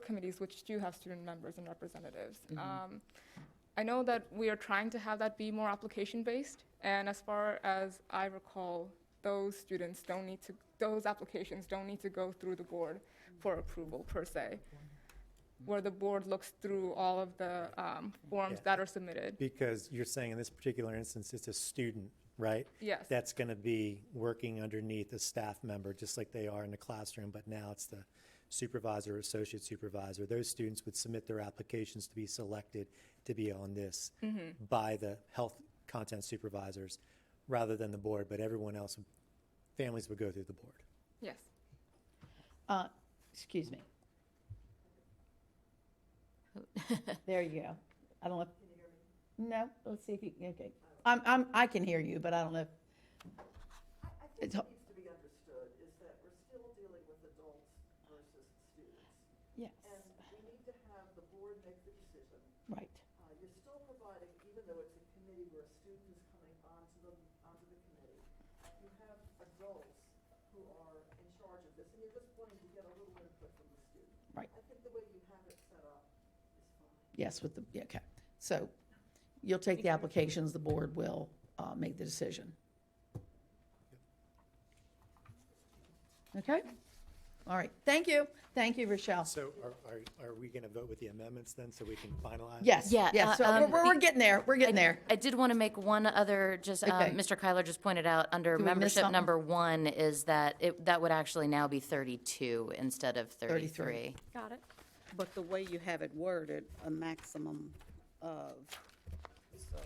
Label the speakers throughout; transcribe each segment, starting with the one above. Speaker 1: committees, which do have student members and representatives.
Speaker 2: Mhm.
Speaker 1: Um, I know that we are trying to have that be more application-based, and as far as I recall, those students don't need to, those applications don't need to go through the board for approval per se, where the board looks through all of the um, forms
Speaker 3: Yeah.
Speaker 1: that are submitted.
Speaker 3: Because you're saying in this particular instance, it's a student, right?
Speaker 1: Yes,
Speaker 3: That's going to be working underneath a staff member, just like they are in the classroom, but now it's the supervisor or associate supervisor. Those students would submit their applications to be selected to be on this by the health content supervisors rather than the board, but everyone else, families would go through the board.
Speaker 1: yes.
Speaker 2: Uh, Excuse me. There you go. I don't know. if- No, let's see if you, okay. I'm, I'm, I can hear you, but I don't know. if-
Speaker 4: I I think
Speaker 2: It's ho-
Speaker 4: what needs to be understood is that we're still dealing with adults versus students.
Speaker 2: Yes,
Speaker 4: And we need to have the board make the decision.
Speaker 2: right.
Speaker 4: Uh, You're still providing, even though it's a committee where a student is coming onto the, onto the committee, you have adults who are in charge of this, and you're just wanting to get a little input from the student.
Speaker 2: Right.
Speaker 4: I think the way you have it set up is fine.
Speaker 2: Yes, with the, yeah, okay. So you'll take the applications, the board will uh, make the decision. Okay? All right. Thank you. Thank you, Rochelle.
Speaker 3: So are, are, are we going to vote with the amendments then so we can finalize?
Speaker 2: Yes,
Speaker 5: Yeah,
Speaker 2: yes. So
Speaker 5: uh,
Speaker 2: we're,
Speaker 5: um,
Speaker 2: we're- we're getting there. We're getting there.
Speaker 5: I did want to make one other, just, um,
Speaker 2: Okay.
Speaker 5: Mr. Kyler just pointed out, under
Speaker 2: Did we miss
Speaker 5: membership
Speaker 2: something?
Speaker 5: number one is that it, that would actually now be 32 instead of
Speaker 2: 33.
Speaker 5: 33.
Speaker 6: Got it.
Speaker 7: But the way you have it worded, a maximum of, so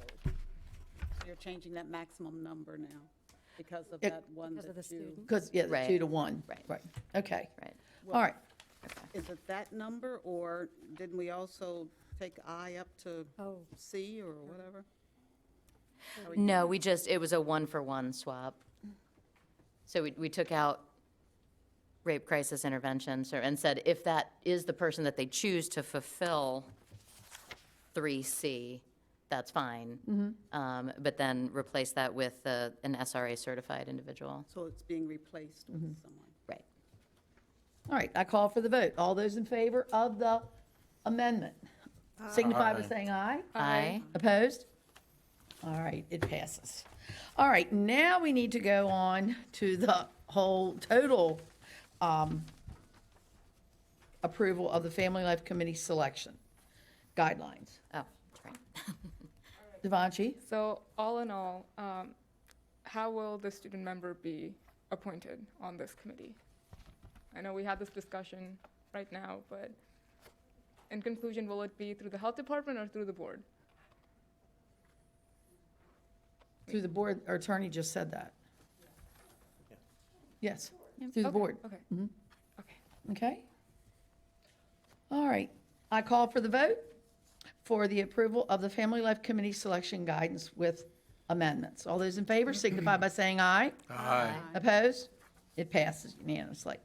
Speaker 7: you're changing that maximum number now because of
Speaker 2: Yeah.
Speaker 7: that one
Speaker 6: Because of the
Speaker 7: that you,
Speaker 6: student.
Speaker 2: Because, yeah, the two
Speaker 5: Right.
Speaker 2: to one.
Speaker 5: Right.
Speaker 2: Right. Okay.
Speaker 5: Right.
Speaker 2: All right.
Speaker 7: is it that number or didn't we also take I up to
Speaker 6: Oh.
Speaker 7: C or whatever?
Speaker 5: No, we just, it was a one-for-one swap. So we, we took out rape crisis intervention, so, and said if that is the person that they choose to fulfill 3C, that's fine.
Speaker 2: Mm-hmm.
Speaker 5: Um, But then replace that with uh, an SRA-certified individual.
Speaker 7: So it's being replaced with
Speaker 6: Mm-hmm.
Speaker 7: someone.
Speaker 5: Right.
Speaker 2: All right. I call for the vote. All those in favor of the amendment signify by saying aye.
Speaker 5: Aye.
Speaker 2: Opposed? All right, it passes. All right, now we need to go on to the whole total um, approval of the Family Life Committee selection guidelines.
Speaker 5: Oh, that's right.
Speaker 2: Devanshi?
Speaker 1: So all in all, um, how will the student member be appointed on this committee? I know we had this discussion right now, but in conclusion, will it be through the health department or through the board?
Speaker 2: Through the board, our attorney just said that. Yes, through the
Speaker 1: Okay,
Speaker 2: board,
Speaker 1: Okay. Okay.
Speaker 2: okay? All right, I call for the vote for the approval of the Family Life Committee selection guidance with amendments. All those in favor signify by saying aye.
Speaker 8: Aye.
Speaker 2: Opposed? It passes unanimously.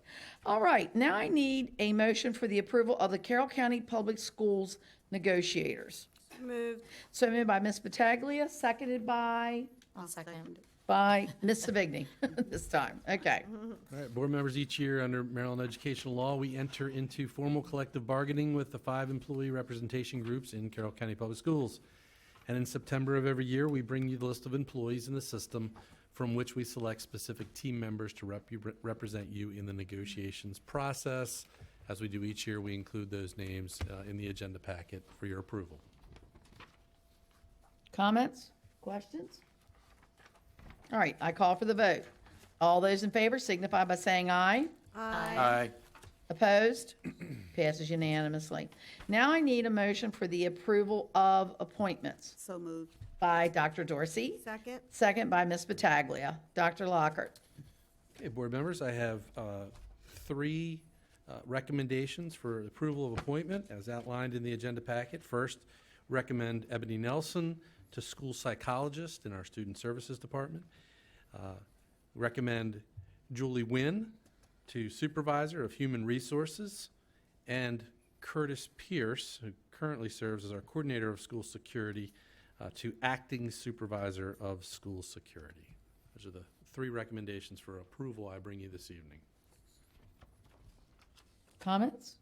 Speaker 2: All right, now I need a motion for the approval of the Carroll County Public Schools negotiators.
Speaker 6: Moved.
Speaker 2: So moved by Ms. Pataglia, seconded by,
Speaker 5: I'll second.
Speaker 2: by Ms. Savigny this time. Okay.
Speaker 8: All right, board members, each year under Maryland educational law, we enter into formal collective bargaining with the five employee representation groups in Carroll County Public Schools. And in September of every year, we bring you the list of employees in the system from which we select specific team members to rep- represent you in the negotiations process. As we do each year, we include those names uh, in the agenda packet for your approval.
Speaker 2: Comments? Questions? All right, I call for the vote. All those in favor signify by saying aye.
Speaker 8: Aye.
Speaker 2: Opposed? Passes unanimously. Now I need a motion for the approval of appointments
Speaker 7: So moved.
Speaker 2: by Dr. Dorsey.
Speaker 6: Second.
Speaker 2: Second by Ms. Pataglia. Dr. Lockhart.
Speaker 8: Okay, board members, I have uh, three uh, recommendations for approval of appointment as outlined in the agenda packet. First, recommend Ebony Nelson to school psychologist in our Student Services Department. Uh, Recommend Julie Nguyen to supervisor of human resources and Curtis Pierce, who currently serves as our coordinator of school security, uh, to acting supervisor of school security. Those are the three recommendations for approval I bring you this evening.
Speaker 2: Comments?